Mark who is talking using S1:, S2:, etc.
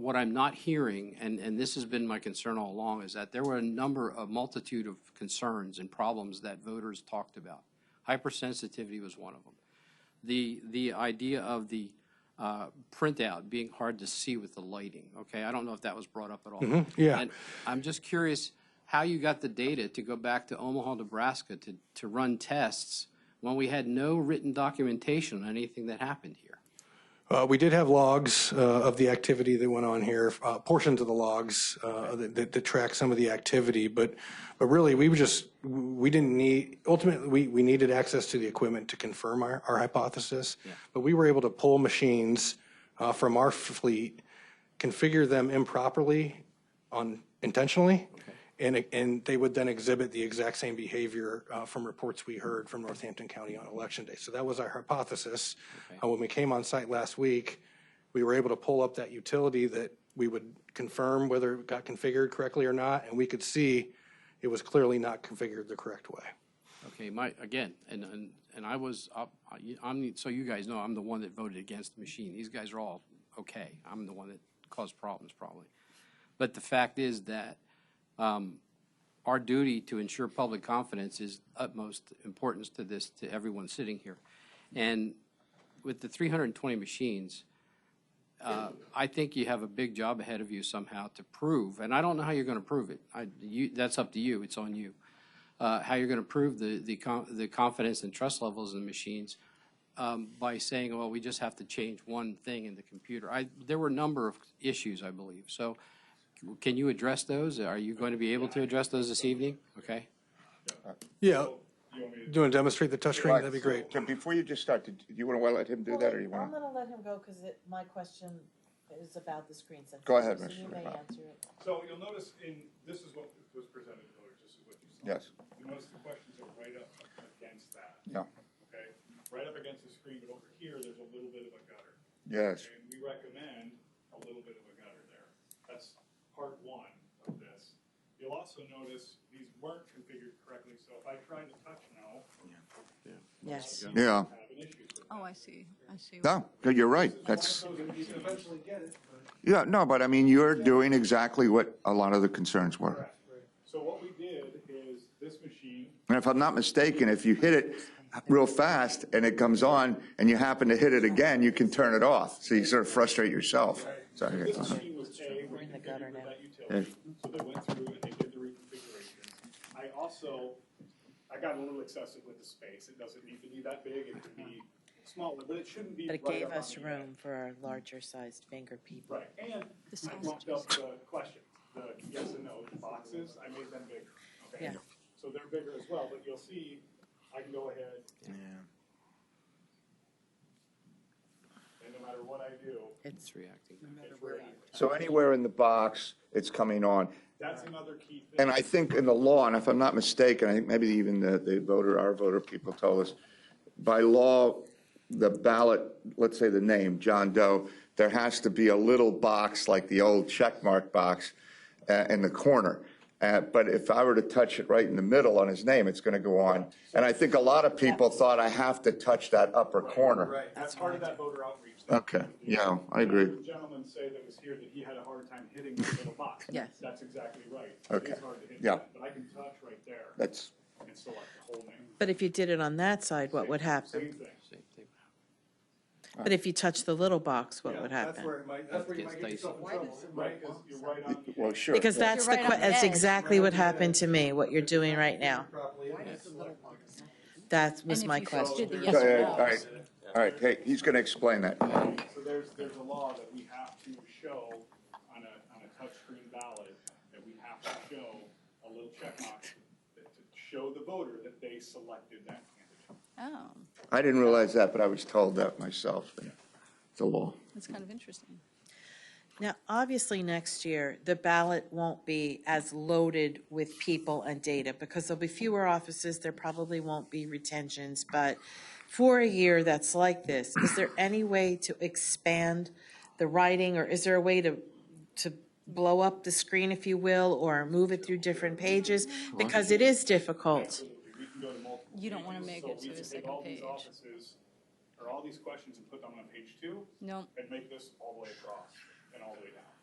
S1: what I'm not hearing, and, and this has been my concern all along, is that there were a number, a multitude of concerns and problems that voters talked about. Hypersensitivity was one of them. The, the idea of the uh, printout being hard to see with the lighting, okay? I don't know if that was brought up at all.
S2: yeah.
S1: And I'm just curious how you got the data to go back to Omaha, Nebraska to, to run tests when we had no written documentation on anything that happened here.
S2: Uh, we did have logs uh, of the activity that went on here, uh, portions of the logs uh, that, that, that track some of the activity, but but really we were just we didn't need ultimately we, we needed access to the equipment to confirm our, our hypothesis, but we were able to pull machines uh, from our fleet, configure them improperly on intentionally, and and they would then exhibit the exact same behavior uh, from reports we heard from Northampton County on election day. So that was our hypothesis. Uh, when we came on site last week, we were able to pull up that utility that we would confirm whether it got configured correctly or not, and we could see it was clearly not configured the correct way.
S1: Okay, my, again, and, and, and I was up, I- I'm, the- so you guys know, I'm the one that voted against the machine. These guys are all okay. I'm the one that caused problems probably. But the fact is that, um, our duty to ensure public confidence is utmost importance to this, to everyone sitting here. And with the three hundred and twenty machines, uh, I think you have a big job ahead of you somehow to prove, and I don't know how you're going to prove it. I, you, that's up to you. It's on you. Uh, how you're going to prove the the, con- the confidence and trust levels in the machines um, by saying, well, we just have to change one thing in the computer. I, there were a number of issues, I believe. So, can you address those? Are you going to be able to address those this evening? Okay.
S2: Yeah. Do you want to demonstrate the touchscreen? That'd be great.
S3: Jim, before you just start, do you want to let him do that, or you want
S4: I'm
S3: to?
S4: gonna let him go, cause it, my question is about the screen sensitivity.
S3: Go ahead,
S4: So
S3: Mr.
S4: you may
S3: McDonald.
S4: answer it.
S5: So you'll notice in, this is what was presented to voters, this is what you saw.
S3: Yes.
S5: You notice the questions are right up against that,
S3: Yeah,
S5: okay? Right up against the screen, but over here, there's a little bit of a gutter.
S3: yes,
S5: And we recommend a little bit of a gutter there. That's part one of this. You'll also notice these weren't configured correctly, so if I try to touch now,
S4: Yes.
S3: yeah.
S5: I have an issue with
S6: Oh, I see, I see.
S3: No, you're right, that's,
S5: it.
S3: yeah, no, but I mean, you're doing exactly what a lot of the concerns were.
S5: Correct. So what we did is this machine,
S3: And if I'm not mistaken, if you hit it real fast and it comes on and you happen to hit it again, you can turn it off. So you sort of frustrate yourself. So,
S5: this
S3: yeah.
S5: machine was A,
S4: We're in the
S5: reconfigured
S4: gutter
S5: with
S4: now.
S5: that utility. So they went through and they did the reconfiguration. I also, I got a little excessive with the space. It doesn't need to be that big. It can be smaller, but it shouldn't be
S4: But
S5: right
S4: it gave
S5: up on
S4: us
S5: the edge.
S4: room for our larger sized finger people.
S5: Right, and
S6: The
S5: I bumped
S6: sausages.
S5: up the questions, the yes and no boxes, I made them bigger, okay?
S4: Yeah.
S5: So they're bigger as well, but you'll see, I can go ahead. And no matter what I do,
S4: It's,
S1: Reacting.
S5: it's ready.
S3: So anywhere in the box, it's coming on.
S5: That's another key thing.
S3: And I think in the law, and if I'm not mistaken, I think maybe even the, the voter, our voter people told us, by law, the ballot, let's say the name, John Doe, there has to be a little box like the old check mark box uh, in the corner. Uh, but if I were to touch it right in the middle on his name, it's going to go on. And I think a lot of people thought I have to touch that upper corner.
S5: Right, that's part of that voter outreach. thing.
S3: Okay, yeah, I agree.
S5: The gentleman say that was here that he had a hard time hitting the little box.
S4: Yes.
S5: That's exactly right. It
S3: Okay.
S5: is hard to hit
S3: Yeah.
S5: that, but I can touch right there
S3: That's,
S5: and select the whole name.
S4: but if you did it on that side, what would
S5: Same
S4: happen?
S5: thing.
S1: Same thing.
S4: But if you touch the little box, what
S5: Yeah,
S4: would
S5: that's
S4: happen?
S5: where it might, that's where you
S1: Gets
S5: might get yourself in
S1: dicey.
S5: trouble, right, 'cause you're right on the
S3: well,
S5: edge.
S3: sure.
S4: Because that's the,
S6: You're right
S4: que-
S6: on the
S4: that's
S6: edge.
S4: exactly what happened to me, what you're doing right now. That was
S6: And if
S4: my
S6: you touched
S4: question.
S6: it, the
S3: Go
S6: yes or
S3: ahead,
S6: no.
S3: all right, all right, hey, he's going to explain that.
S5: So there's, there's a law that we have to show on a, on a touchscreen ballot, that we have to show a little checkmark that to show the voter that they selected that candidate.
S6: Oh,
S3: I didn't realize that, but I was told that myself. It's a law.
S6: that's kind of interesting.
S4: Now, obviously, next year, the ballot won't be as loaded with people and data because there'll be fewer offices, there probably won't be retentions, but for a year that's like this, is there any way to expand the writing or is there a way to, to blow up the screen, if you will, or move it through different pages? Because it is difficult.
S5: We can go to multiple
S6: You don't wanna
S5: pages,
S6: make
S5: so
S6: it
S5: we
S6: to
S5: can
S6: a
S5: take
S6: second
S5: all these
S6: page.
S5: offices, Or all these questions and put them on page two
S6: No,
S5: and make this all the way across and all the way down.